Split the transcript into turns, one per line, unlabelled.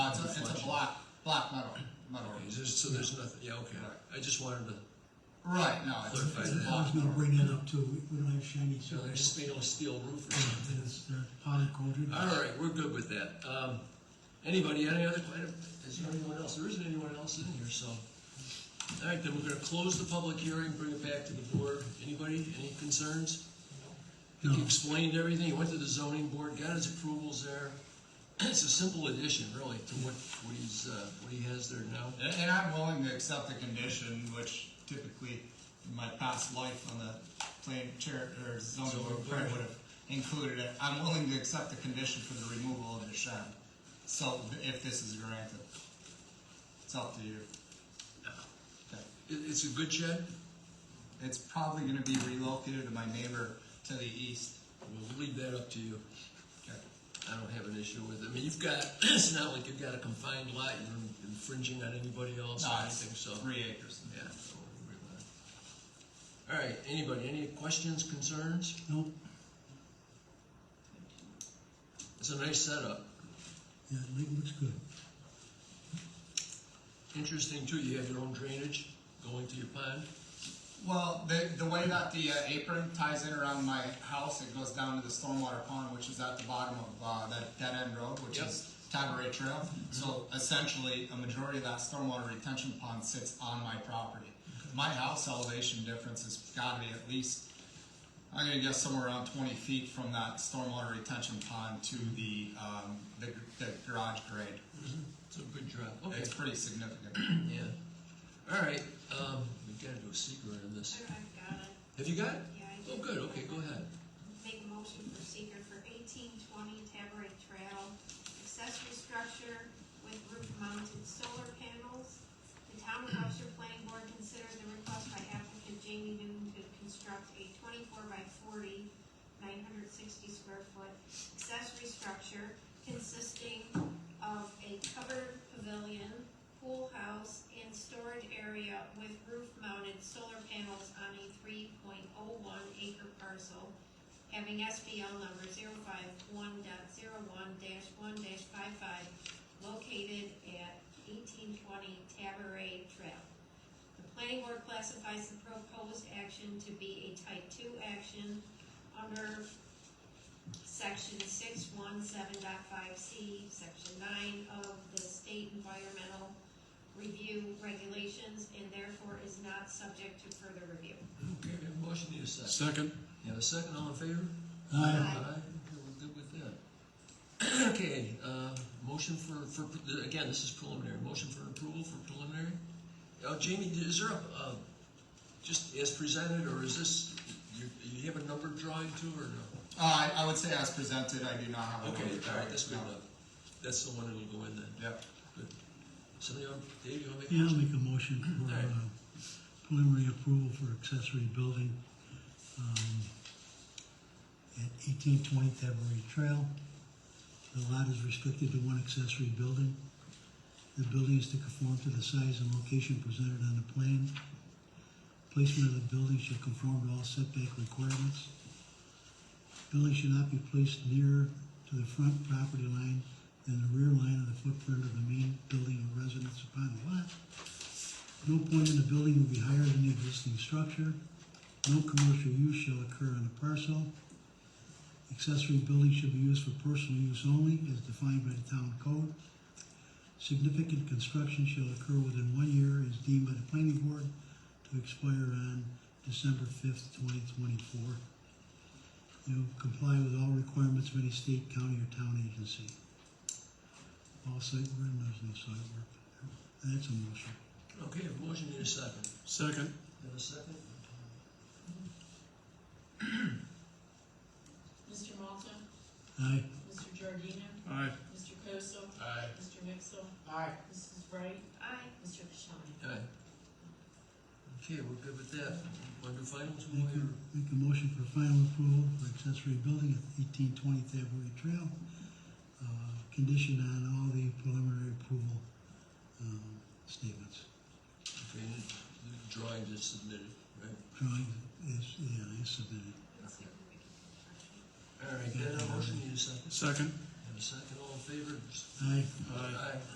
Block, not on, not on.
Okay, there's- so there's nothing, yeah, okay, I just wanted to,
Right, no, it's,
Clarify
it's
that.
block.
I was gonna bring that up too, We- we don't have shiny
you know, there's,
silvers.
you know, a steel roof or something.
That is, they're potted cauldron.
All right, we're good with that. Um, anybody, any other, is there anyone else? There isn't anyone else in here, so. All right, then we're gonna close the public hearing, bring it back to the board. Anybody, any concerns? I think you
No.
explained everything. You went to the zoning board, got his approvals there. It's a simple addition, really, to what, what he's, uh, what he has there now.
And, and I'm willing to accept the condition, which typically in my past life on the plane chair or zoning board probably would have included it. I'm willing to accept the condition for the removal of the shed. So if this is granted, it's up to you. Okay.
It, it's a good shed.
It's probably gonna be relocated to my neighbor to the east.
We'll leave that up to you.
Okay.
I don't have an issue with it. I mean, you've got, it's not like you've got a confined lot, you're infringing on anybody else or
No, it's
anything, so.
three acres.
Yeah. so we're good. All right, anybody, any questions, concerns?
Nope,
It's a nice setup.
yeah, it looks- looks good.
Interesting too, you have your own drainage going to your pond.
Well, the, the way that the uh, apron ties in around my house, it goes down to the stormwater pond, which is at the bottom of uh, that dead end road, which
Yep. Mm-hmm.
is Tabaret Trail. So essentially, a majority of that stormwater retention pond sits on my property. My house elevation difference has got to be at least, I'm going to guess somewhere around 20 feet from that stormwater retention pond to the um, the, the garage grade.
It's a good job. Okay,
It's pretty significant.
yeah. All right, um, we've gotta do a secret on this.
Sure, I've got it.
Have you got it?
Yeah, I
Oh,
did.
good, okay, go ahead.
Make a motion for seeker for eighteen twenty Taberray Trail, accessory structure with roof-mounted solar panels. The town of Webster Planning Board considered the request by applicant Jamie Newton to construct a twenty-four by 40, 960 square foot accessory structure consisting of a covered pavilion, pool house, and storage area with roof-mounted solar panels on a three point oh one acre parcel having SBL number 51 one five-five, located at eighteen twenty Tabaret Trail. The planning board classifies the proposed action to be a type two action under section six one seven C, section nine of the state environmental review regulations, and therefore is not subject to further review.
Okay, we have a motion, need a second.
Second.
You have a second, all in favor?
Aye.
Aye.
Okay, we're good with that. Okay, uh, motion for, for, again, this is preliminary, motion for approval for preliminary? Uh, Jamie, is there a, uh, just as presented, or is this, you, you have a numbered drawing too, or no?
Uh, I, I would say as presented, I do not have a
Okay,
vote.
all right, that's good
No.
enough. That's the one that'll go in then.
Yep.
Somebody, on- Dave, you wanna make a
Yeah, I'll
motion?
make a motion for
Aye.
uh, preliminary approval for accessory building um, at eighteen twenty Taberray Trail. The lot is restricted to one accessory building. The building is to conform to the size and location presented on the plan. Placement of the building should conform to all setback requirements. Building should not be placed nearer to the front property line than the rear line of the footprint of the main building or residence upon the lot. No point in the building will be higher than the existing structure. No commercial use shall occur on the parcel. Accessory building should be used for personal use only as defined by the town code. Significant construction shall occur within one year as deemed by the planning board to expire on December fifth, twenty twenty-four. You comply with all requirements of any state, county, or town agency. All site work, and there's no site work. That's a motion.
Okay, a motion, need a second.
Second.
You have a second?
Mr. Malta?
Aye.
Mr. Giardina?
Aye.
Mr. Kosel?
Aye.
Mr. Mixel? Aye. Mrs. Wright?
Aye.
Mr. Kashani?
Aye. Okay, we're good with that. Wanna do finals,
Make
one way
a,
or-
make a motion for final approval for accessory building at eighteen twenty Taberry Trail. Uh, conditioned on all the preliminary approval, um, statements.
okay, and the drawing just submitted, right?
Drawing is, yeah, is submitted.
Let's see if we can-
All right, then a motion, need a second?
Second.
Have a second, all in favor?
Aye.
Aye.